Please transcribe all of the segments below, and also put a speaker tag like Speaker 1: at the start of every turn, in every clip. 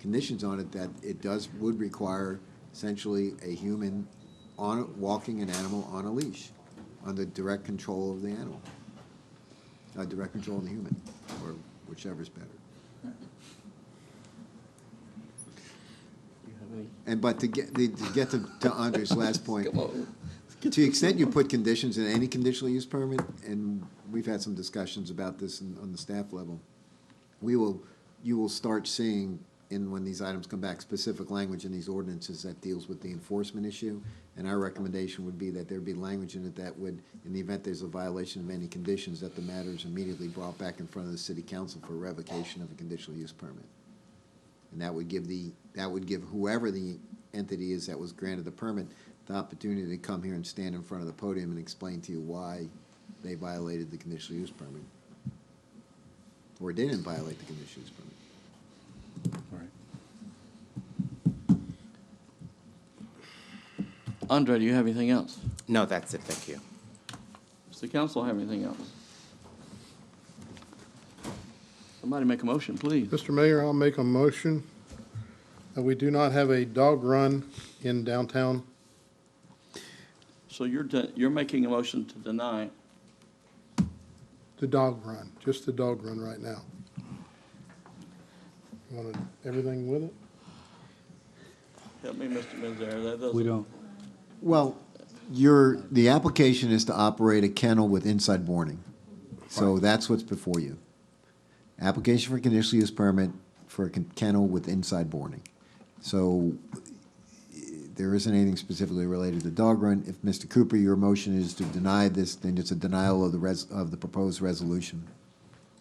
Speaker 1: conditions on it that it does, would require essentially a human on, walking an animal on a leash, under direct control of the animal. Uh, direct control of the human, or whichever's better.
Speaker 2: You have any?
Speaker 1: And, but to get, the- to get to to Andre's last point,
Speaker 2: Come on.
Speaker 1: to the extent you put conditions in any conditional use permit, and we've had some discussions about this in- on the staff level, we will, you will start seeing in, when these items come back, specific language in these ordinances that deals with the enforcement issue. And our recommendation would be that there be language in it that would, in the event there's a violation of any conditions, that the matter is immediately brought back in front of the city council for revocation of a conditional use permit. And that would give the, that would give whoever the entity is that was granted the permit, the opportunity to come here and stand in front of the podium and explain to you why they violated the conditional use permit. Or didn't violate the conditional use permit.
Speaker 2: All right. Andre, do you have anything else?
Speaker 3: No, that's it, thank you.
Speaker 2: Does the council have anything else? Somebody make a motion, please.
Speaker 4: Mr. Mayor, I'll make a motion that we do not have a dog run in downtown.
Speaker 2: So you're, de- you're making a motion to deny.
Speaker 4: The dog run, just the dog run right now. You Want everything with it?
Speaker 2: Help me, Mr. Mizar, that doesn't.
Speaker 5: We don't,
Speaker 1: Well, your, the application is to operate a kennel with inside boarding. So that's what's before you. Application for conditional use permit for a con- kennel with inside boarding. So eh, there isn't anything specifically related to dog run. If Mr. Cooper, your motion is to deny this, then it's a denial of the res, of the proposed resolution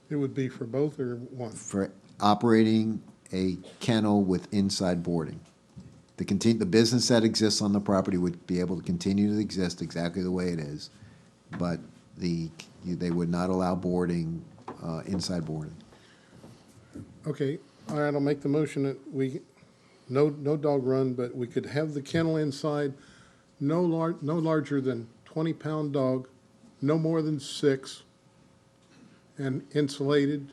Speaker 4: It would be for both or one?
Speaker 1: for operating a kennel with inside boarding. The contin, the business that exists on the property would be able to continue to exist exactly the way it is, but the, they would not allow boarding, uh, inside boarding.
Speaker 4: Okay, all right, I'll make the motion that we, no, no dog run, but we could have the kennel inside, no lar, no larger than twenty pound dog, no more than six, and insulated,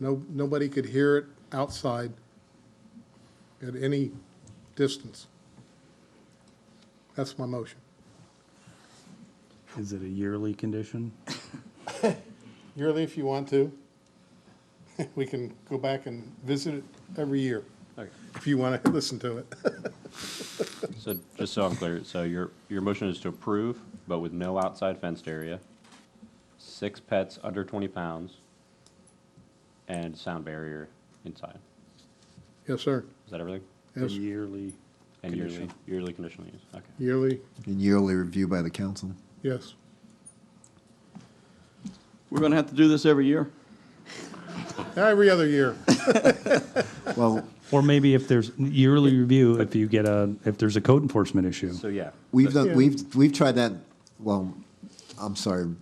Speaker 4: no, nobody could hear it outside at any distance. That's my motion.
Speaker 5: is it a yearly condition?
Speaker 4: Yearly, if you want to, we can go back and visit it every year, if you want to listen to it.
Speaker 6: So just so I'm clear, so your, your motion is to approve, but with no outside fenced area, six pets under 20 pounds, and sound barrier inside.
Speaker 4: Yes, sir.
Speaker 6: Is that everything?
Speaker 5: A
Speaker 4: Yes,
Speaker 5: yearly,
Speaker 6: And yearly,
Speaker 5: Conditional.
Speaker 6: yearly conditional use, okay.
Speaker 4: yearly,
Speaker 1: And yearly review by the council.
Speaker 4: yes.
Speaker 2: We're gonna have to do this every year?
Speaker 4: Every other year.
Speaker 1: Well,
Speaker 5: or maybe if there's yearly review, if you get a, if there's a code enforcement issue.
Speaker 6: So yeah,
Speaker 1: we've done,
Speaker 4: Yeah.
Speaker 1: we've, we've tried that, well, I'm sorry,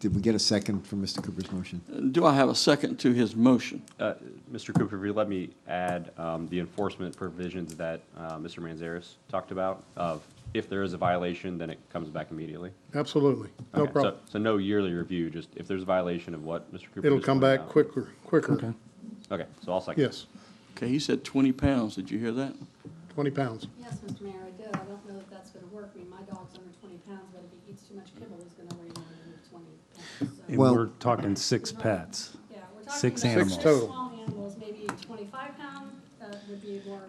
Speaker 1: did we get a second for Mr. Cooper's motion?
Speaker 2: Do I have a second to his motion?
Speaker 6: uh, Mr. Cooper, if you let me add um, the enforcement provisions that uh, Mr. Manzares talked about of if there is a violation, then it comes back immediately.
Speaker 4: Absolutely. No
Speaker 6: Okay, so-
Speaker 4: problem.
Speaker 6: So no yearly review, just if there's a violation of what Mr. Cooper
Speaker 4: It'll
Speaker 6: just
Speaker 4: come
Speaker 6: pointed
Speaker 4: back
Speaker 6: out.
Speaker 4: quicker, quicker.
Speaker 5: Okay.
Speaker 6: Okay, so I'll second.
Speaker 4: Yes,
Speaker 2: Okay, he said twenty pounds, did you hear that?
Speaker 4: 20 pounds.
Speaker 7: Yes, Mr. Mayor, I did. I don't know if that's gonna work. I mean, my dog's under twenty pounds, but if he eats too much kibble, he's gonna weigh more than twenty pounds.
Speaker 5: And
Speaker 7: So,
Speaker 1: Well-
Speaker 5: we're talking six pets.
Speaker 7: Yeah, we're talking about
Speaker 5: Six
Speaker 4: animals.
Speaker 7: six
Speaker 4: Six total.
Speaker 7: small animals, maybe twenty-five pound, that would be more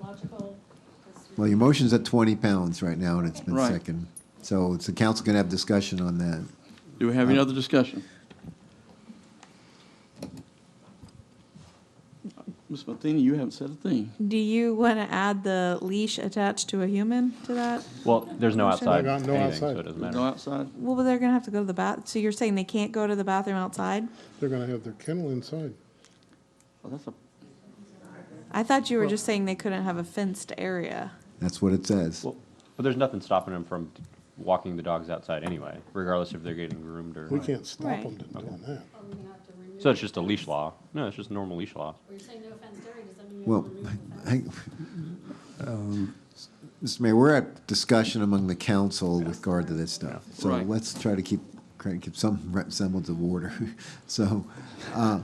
Speaker 7: logical. 'cause we-
Speaker 1: Well, your motion's at twenty pounds right now and it's been
Speaker 2: Right.
Speaker 1: seconded. So it's the council gonna have discussion on that.
Speaker 2: Do we have any other discussion? Ms. Matheny, you haven't said a thing.
Speaker 8: Do you want to add the leash attached to a human to that?
Speaker 6: Well, there's no
Speaker 8: Motion.
Speaker 6: outside
Speaker 4: No
Speaker 6: anything, so
Speaker 4: outside.
Speaker 6: it doesn't matter.
Speaker 2: Go outside.
Speaker 8: Well, but they're going to have to go to the bath, so you're saying they can't go to the bathroom outside?
Speaker 4: They're going to have their kennel inside.
Speaker 2: Well, Oh, that's a,
Speaker 8: I thought you were just saying they couldn't have a fenced area.
Speaker 1: That's what it says.
Speaker 6: Well, but there's nothing stopping them from walking the dogs outside anyway, regardless if they're getting groomed or.
Speaker 4: We can't stop
Speaker 8: Right.
Speaker 4: them from doing that.
Speaker 7: Are we gonna have to remove?
Speaker 6: So it's just a leash law. No, it's just normal leash law.
Speaker 7: We're saying no fenced area, does that mean we
Speaker 1: Well,
Speaker 7: have to remove the fence?
Speaker 1: I, Mr. Mayor, we're at discussion among the council with regard to this stuff. So
Speaker 2: Right.
Speaker 1: let's try to keep, try to keep some semblance of order. So, uh,